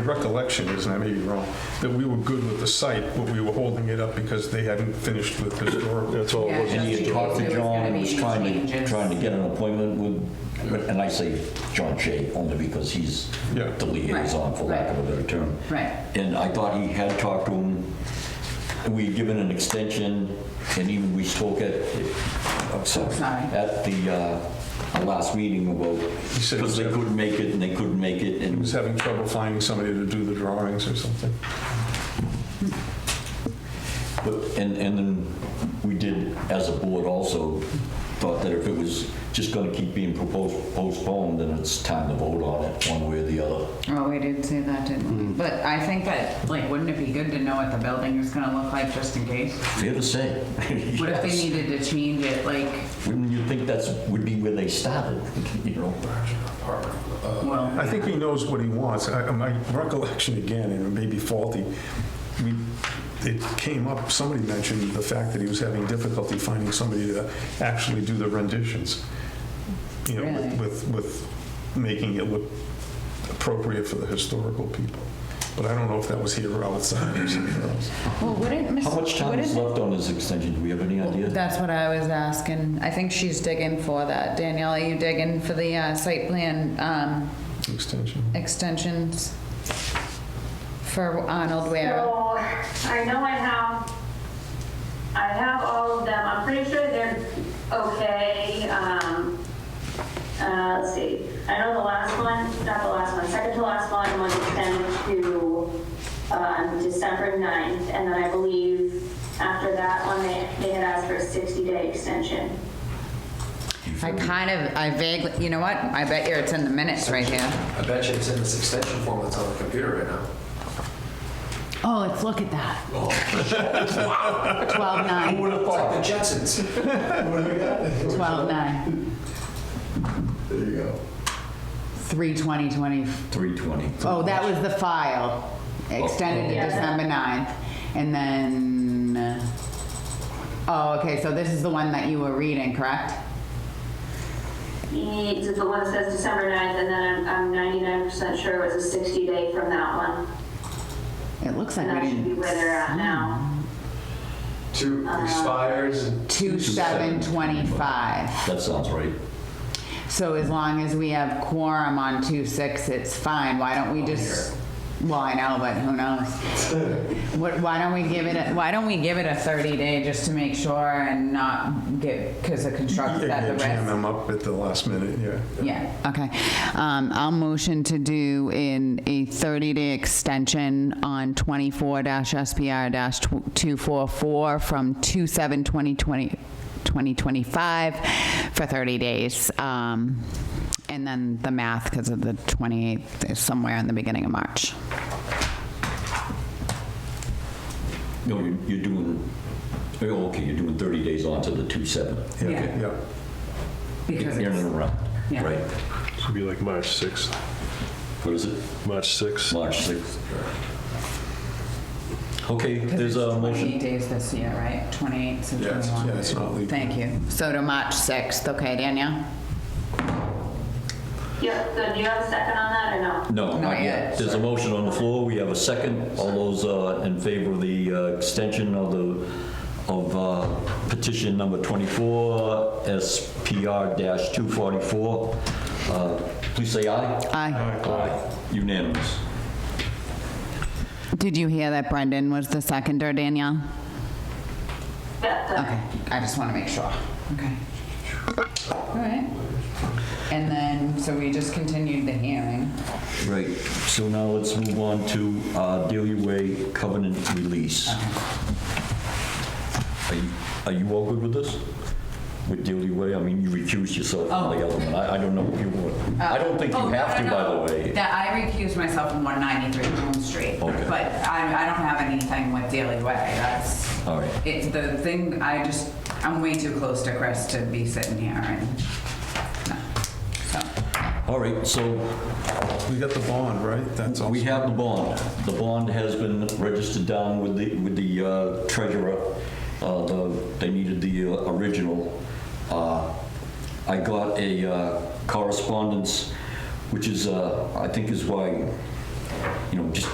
My recollection is, and I may be wrong, that we were good with the site, but we were holding it up because they hadn't finished with historical. That's all it was. Yeah, And just you talked because to there was John, gonna who was be trying to, changes. trying to get an appointment with, and I say John Shea only because he's Yeah. the liaison, for lack of a better term. Right. And I thought he had talked to him, and we'd given an extension, and even we spoke at, I'm sorry, Sorry. at the, uh, our last meeting about, said he because was they having- couldn't make it, and they couldn't make it, He and was having trouble finding somebody to do the drawings or something. But, and, and then we did, as a board also, thought that if it was just gonna keep being proposed, postponed, then it's time to vote on it, one way or the other. Oh, we did say that, Hmm. didn't we? But I think that, like, wouldn't it be good to know what the building is gonna look like just in case? Fair to say. What if they Yes. needed to change it, like, Wouldn't you think that's, would be where they started, you know? well, Uh, I think he knows what he wants. I- My recollection again, and it may be faulty, we- it came up, somebody mentioned the fact that he was having difficulty finding somebody to actually do the renditions. You know, with- Really? with, with making it look appropriate for the historical people. But I don't know if that was here or outside or somewhere else. well, wouldn't Miss? How much time wouldn't- is left on this extension, do we have any idea? That's what I was asking. I think she's digging for that. Danielle, are you digging for the uh, site plan um, Extension. extensions for Arnold Ware? So, I know I have, I have all of them, I'm pretty sure they're okay, um, uh, let's see, I know the last one, not the last one, second to last one was extended to, um, December 9th, and then I believe after that one, they, they had asked for a 60-day extension. I kind of, I vaguely, you know what? I bet you it's in the minutes right here. I bet you it's in this extension form that's on the computer right now. Oh, let's look at that. 12-9, It's like the Jetsons. 12-9, There you go. 3/20/20. Three twenty. Oh, that was the file, extended to Yeah. December 9th. And then, uh, oh, okay, so this is the one that you were reading, correct? He, the one that says December 9th, and then I'm, I'm 99% sure it was a 60-day from that one, It looks like and we that should be didn't. where they're at now. Two expires and 2/7/25. That sounds right. So as long as we have quorum on two six, it's fine. Why don't we just? Well, I know, but who knows? What, why don't we give it? A, why don't we give it a thirty day just to make sure and not get because the construction Yeah, that the yeah, jam risk. them up at the last minute, yeah. Yeah. Okay. Um, I'll motion to do in a thirty day extension on twenty four SPR two four four from two seven twenty twenty. 2025 for 30 days. Um, and then the math, because of the 28th, is somewhere in the beginning of March. No, you- you're doing, oh, okay, you're doing thirty days on to the two seven. Yeah. Yeah, Because In it's, and around, Yeah. right. Should be like March 6th, What is it? March 6th. March 6th. Okay, there's a motion. 28 days this year, right? 28, so yeah, it's- 21. yeah, it's not legal. Thank you. So to March 6th, okay, Danielle? Yep, so do you have a second on that or no? No, Not not yet. yet. There's a motion on the floor, we have a second. All those uh, in favor of the uh, extension of the, of uh, petition number 24, SPR-244, uh, please say aye. Aye. Aye. Unanimous. Did you hear that Brendan was the seconder, Danielle? Yep, the- Okay, I just want to make sure. Okay. All right. And then, so we just continued the hearing. Right, so now let's move on to uh, Dealey Way covenant release. Are you- Are you all good with this? With Dealey Way, I mean, you recused yourself from the Oh. other one, I I don't know if you want, I don't think you Oh, no, have to, no, by no. the way. That I recused myself from 193 Elm Street, Okay. but I, I don't have anything with Daily Way, that's. All right. It's the thing, I just, I'm way too close to Chris to be sitting here and, no, so. All right, so We got the bond, right? That's all. we have the bond. The bond has been registered down with the, with the uh, treasurer. Uh, the- They needed the uh, original. Uh, I got a uh, correspondence, which is, uh, I think is why you know, just